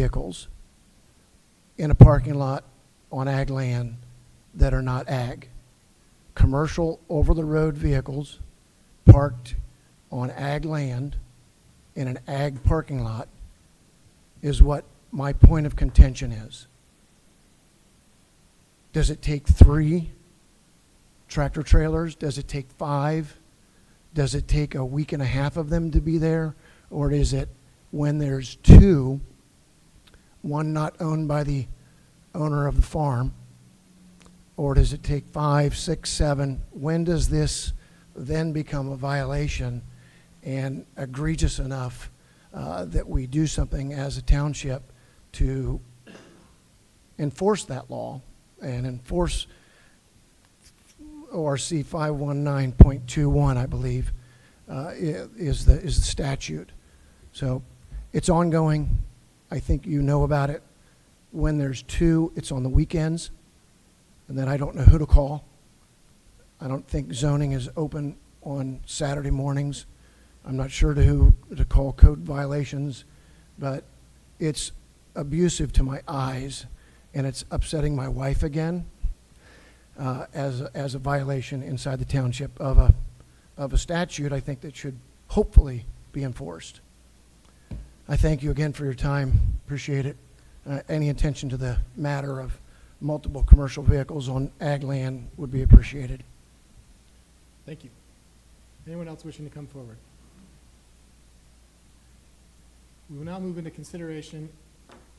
vehicles in a parking lot on ag land that are not ag. Commercial over-the-road vehicles parked on ag land in an ag parking lot is what my point of contention is. Does it take three tractor trailers? Does it take five? Does it take a week and a half of them to be there? Or is it when there's two, one not owned by the owner of the farm? Or does it take five, six, seven? When does this then become a violation and egregious enough uh, that we do something as a township to enforce that law and enforce ORC 519.21, I believe, uh, i- is the, is the statute. So it's ongoing. I think you know about it. When there's two, it's on the weekends, and then I don't know who to call. I don't think zoning is open on Saturday mornings. I'm not sure to who to call code violations, but it's abusive to my eyes, and it's upsetting my wife again uh, as, as a violation inside the township of a, of a statute, I think that should hopefully be enforced. I thank you again for your time, appreciate it. Uh, Any attention to the matter of multiple commercial vehicles on ag land would be appreciated. Thank you. Anyone else wishing to come forward? We will now move into consideration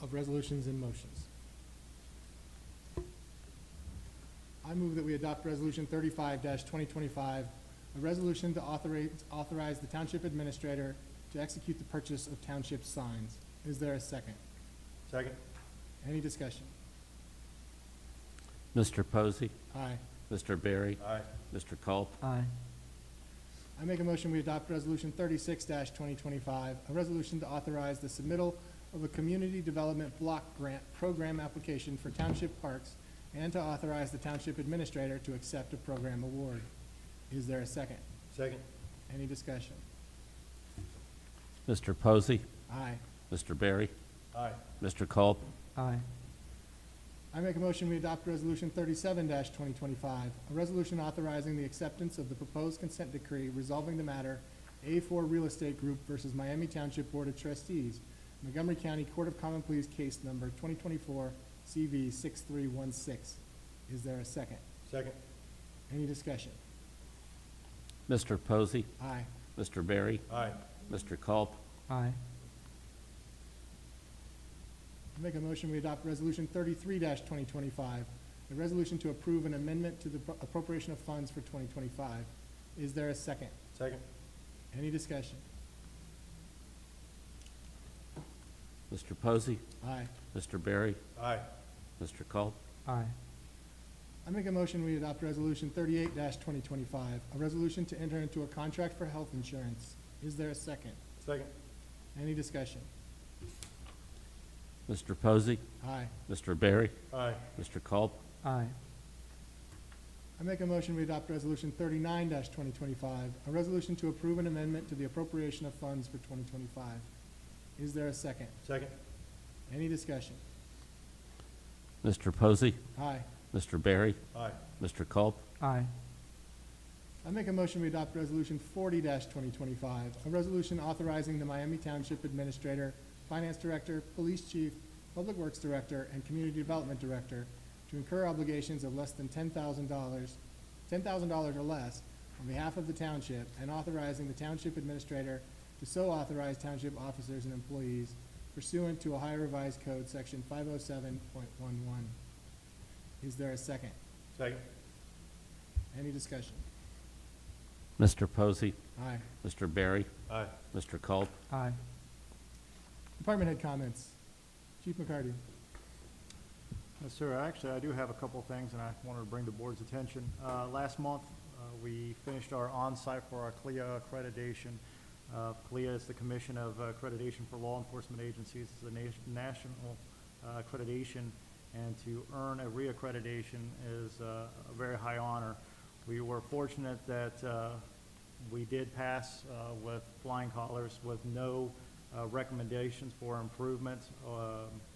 of resolutions and motions. I move that we adopt Resolution thirty-five twenty twenty-five, a resolution to authorize, authorize the township administrator to execute the purchase of township signs. Is there a second? Second. Any discussion? Mr. Posey, Aye. Mr. Berry, Aye. Mr. Culp, Aye. I make a motion we adopt Resolution thirty-six twenty twenty-five, a resolution to authorize the submittal of a community development block grant program application for township parks and to authorize the township administrator to accept a program award. Is there a second? Second. Any discussion? Mr. Posey, Aye. Mr. Berry, Aye. Mr. Culp, Aye. I make a motion we adopt Resolution thirty-seven twenty twenty-five, a resolution authorizing the acceptance of the proposed consent decree resolving the matter A four Real Estate Group versus Miami Township Board of Trustees, Montgomery County Court of Common Pleas case number twenty twenty-four CV six three one six. Is there a second? Second. Any discussion? Mr. Posey, Aye. Mr. Berry, Aye. Mr. Culp, Aye. I make a motion we adopt Resolution thirty-three twenty twenty-five, a resolution to approve an amendment to the appropriation of funds for twenty twenty-five. Is there a second? Second. Any discussion? Mr. Posey, Aye. Mr. Berry, Aye. Mr. Culp, Aye. I make a motion we adopt Resolution thirty-eight twenty twenty-five, a resolution to enter into a contract for health insurance. Is there a second? Second. Any discussion? Mr. Posey, Aye. Mr. Berry, Aye. Mr. Culp, Aye. I make a motion we adopt Resolution thirty-nine twenty twenty-five, a resolution to approve an amendment to the appropriation of funds for twenty twenty-five. Is there a second? Second. Any discussion? Mr. Posey, Aye. Mr. Berry, Aye. Mr. Culp, Aye. I make a motion we adopt Resolution forty twenty twenty-five, a resolution authorizing the Miami Township Administrator, Finance Director, Police Chief, Public Works Director, and Community Development Director to incur obligations of less than ten thousand dollars, ten thousand dollars or less on behalf of the township, and authorizing the Township Administrator to so authorize township officers and employees pursuant to Ohio Revised Code, Section five oh seven point one one. Is there a second? Second. Any discussion? Mr. Posey, Aye. Mr. Berry, Aye. Mr. Culp, Aye. Department head comments. Chief McCarty. Yes, sir. Actually, I do have a couple of things, and I wanted to bring the board's attention. Uh, Last month, uh, we finished our on-site for our CLIA accreditation. Uh, CLIA is the Commission of Accreditation for Law Enforcement Agencies. It's a nation- national uh, accreditation, and to earn a reaccreditation is uh, a very high honor. We were fortunate that uh, we did pass uh, with flying colors with no uh, recommendations for improvements um,